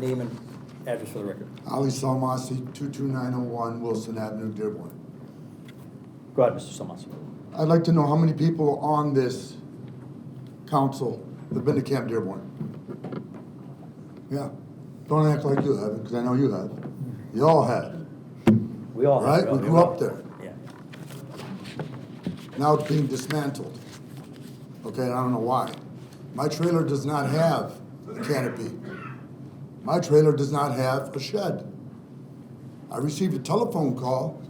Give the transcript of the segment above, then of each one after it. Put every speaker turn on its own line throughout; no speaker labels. Name and address for the record.
Ali Salmasi, 22901 Wilson Avenue, Dearborn.
Go ahead, Mr. Solomasi.
I'd like to know how many people on this council have been to Camp Dearborn? Yeah, don't act like you haven't, because I know you have. You all have.
We all have.
Right, we grew up there.
Yeah.
Now it's being dismantled. Okay, and I don't know why. My trailer does not have a canopy. My trailer does not have a shed. I received a telephone call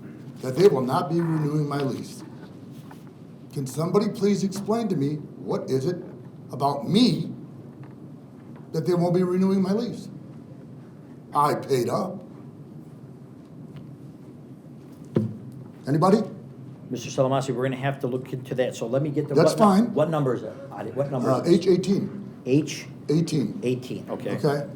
that they will not be renewing my lease. Can somebody please explain to me what is it about me that they won't be renewing my lease? I paid up. Anybody?
Mr. Solomasi, we're gonna have to look into that, so let me get the.
That's
what nu-
fine.
What number is that? I did- What number?
Uh,
is it?
H eighteen,
H
eighteen.
eighteen, okay.
Okay?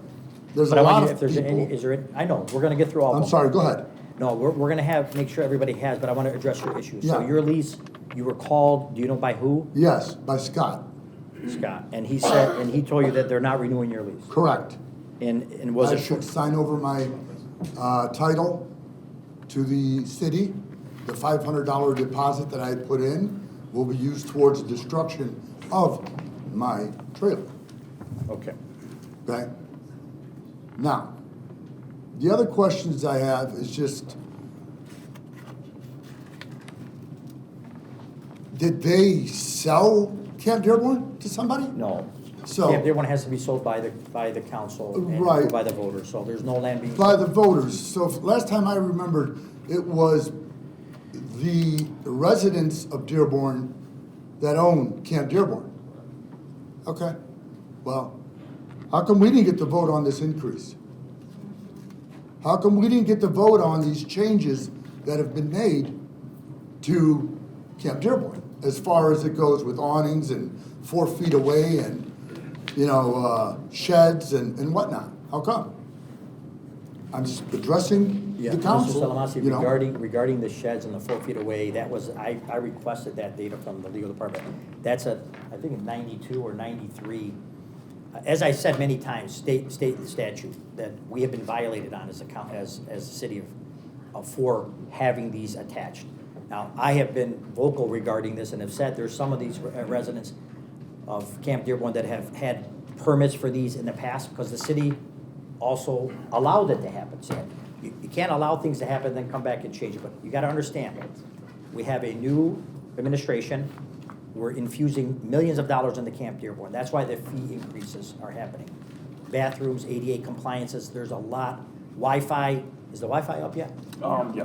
There's
But
a
I want
lot
you, if
of
there's any,
people.
is there, any- I know, we're gonna get through all of them.
I'm sorry, go ahead.
No, we're, we're gonna have, make sure everybody has, but I wanna address your issue. So
Yeah.
your lease, you were called, do you know by who?
Yes, by Scott.
Scott, and he said, and he told you that they're not renewing your lease,
Correct.
and, and was
I
it?
should sign over my uh, title to the city. The $500 deposit that I had put in will be used towards destruction of my trailer.
Okay,
Okay? Now, the other questions I have is just, did they sell Camp Dearborn to somebody?
no.
So-
Yeah, everyone has to be sold by the, by the council and
Right.
by the voters, so there's no land being.
By the voters. So if- last time I remembered, it was the residents of Dearborn that own Camp Dearborn. Okay, well, how come we didn't get to vote on this increase? How come we didn't get to vote on these changes that have been made to Camp Dearborn? As far as it goes with awnings and four feet away and, you know, uh, sheds and, and whatnot? How come? I'm just addressing
Yeah,
the council,
Mr. Salamasi,
you know?
regarding, regarding the sheds and the four feet away, that was, I, I requested that data from the legal department. That's a, I think a ninety-two or ninety-three, Uh, as I said many times, state, state statute that we have been violated on as a coun, as, as a city of, of for having these attached. Now, I have been vocal regarding this and have said there's some of these re- uh, residents of Camp Dearborn that have had permits for these in the past because the city also allowed it to happen. So you, you can't allow things to happen, then come back and change it, but you gotta understand, we have a new administration. We're infusing millions of dollars into Camp Dearborn. That's why the fee increases are happening. Bathrooms, ADA compliances, there's a lot. Wi-Fi, is the Wi-Fi up yet?
Um, yeah,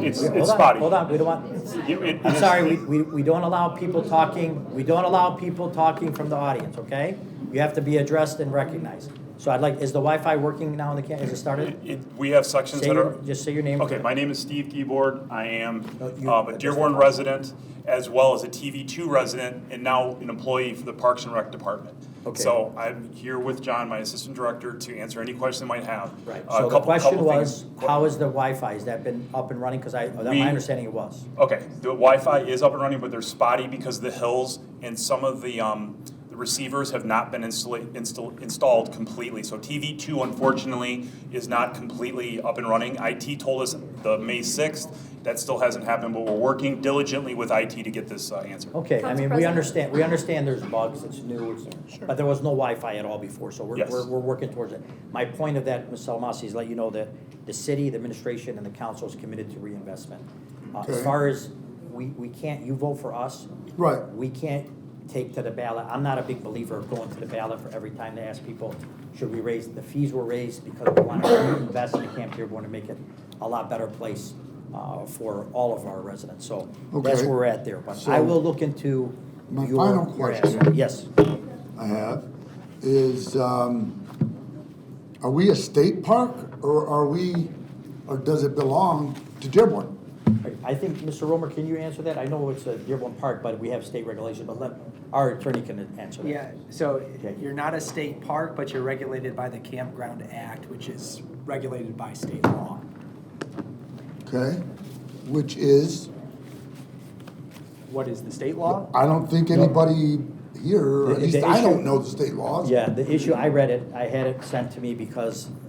it's,
Hold
it's
on,
spotty.
Hold on, we don't want,
It- it-
I'm
it-
sorry, we, we, we don't allow people talking, we don't allow people talking from the audience, okay? You have to be addressed and recognized. So I'd like, is the Wi-Fi working now in the camp, has it started?
it- We have sections
Say
that
your,
are,
just say your name.
okay, my name is Steve Keyboard, I am
No, you-
um, a
that's
Dearborn
the-
resident, as well as a TV2 resident, and now an employee for the Parks and Rec Department.
Okay.
So I'm here with John, my assistant director, to answer any questions they might have.
Right,
A
so the
couple-
question
couple things-
was, how is the Wi-Fi, has that been up and running? Because I, that-
We-
my understanding it was.
Okay, the Wi-Fi is up and running, but they're spotty because of the hills and some of the, um, the receivers have not been installa- install- installed completely. So TV two unfortunately is not completely up and running. IT told us the May sixth, that still hasn't happened, but we're working diligently with IT to get this uh, answered.
Okay, I
Council
mean, we
President.
understand, we understand there's bugs, it's new, it's, but there was no Wi-Fi at all before, so we're,
Yes.
we're, we're working towards it. My point of that, Ms. Salamasi, is let you know that the city, the administration, and the council is committed to reinvestment. Uh, as
Okay.
far as, we, we can't, you vote for us,
Right,
we can't take to the ballot, I'm not a big believer of going to the ballot for every time to ask people, should we raise, the fees were raised because we want to invest in Camp Dearborn to make it a lot better place uh, for all of our residents, so that's
Okay.
where we're at there. But I
So-
will look into
My
your.
final
your ask.
question.
Yes,
I have, is, um, are we a state park or are we, or does it belong to Dearborn?
I think, Mr. Romer, can you answer that? I know it's a Dearborn Park, but we have state regulation, but let, our attorney can answer that.
Yeah, so
Okay.
you're not a state park, but you're regulated by the Campground Act, which is regulated by state law.
Okay, which is,
What is the state law?
I don't think anybody here, or
The-
at least
the
I
issue-
don't know the state laws.
Yeah, the issue, I read it, I had it sent to me because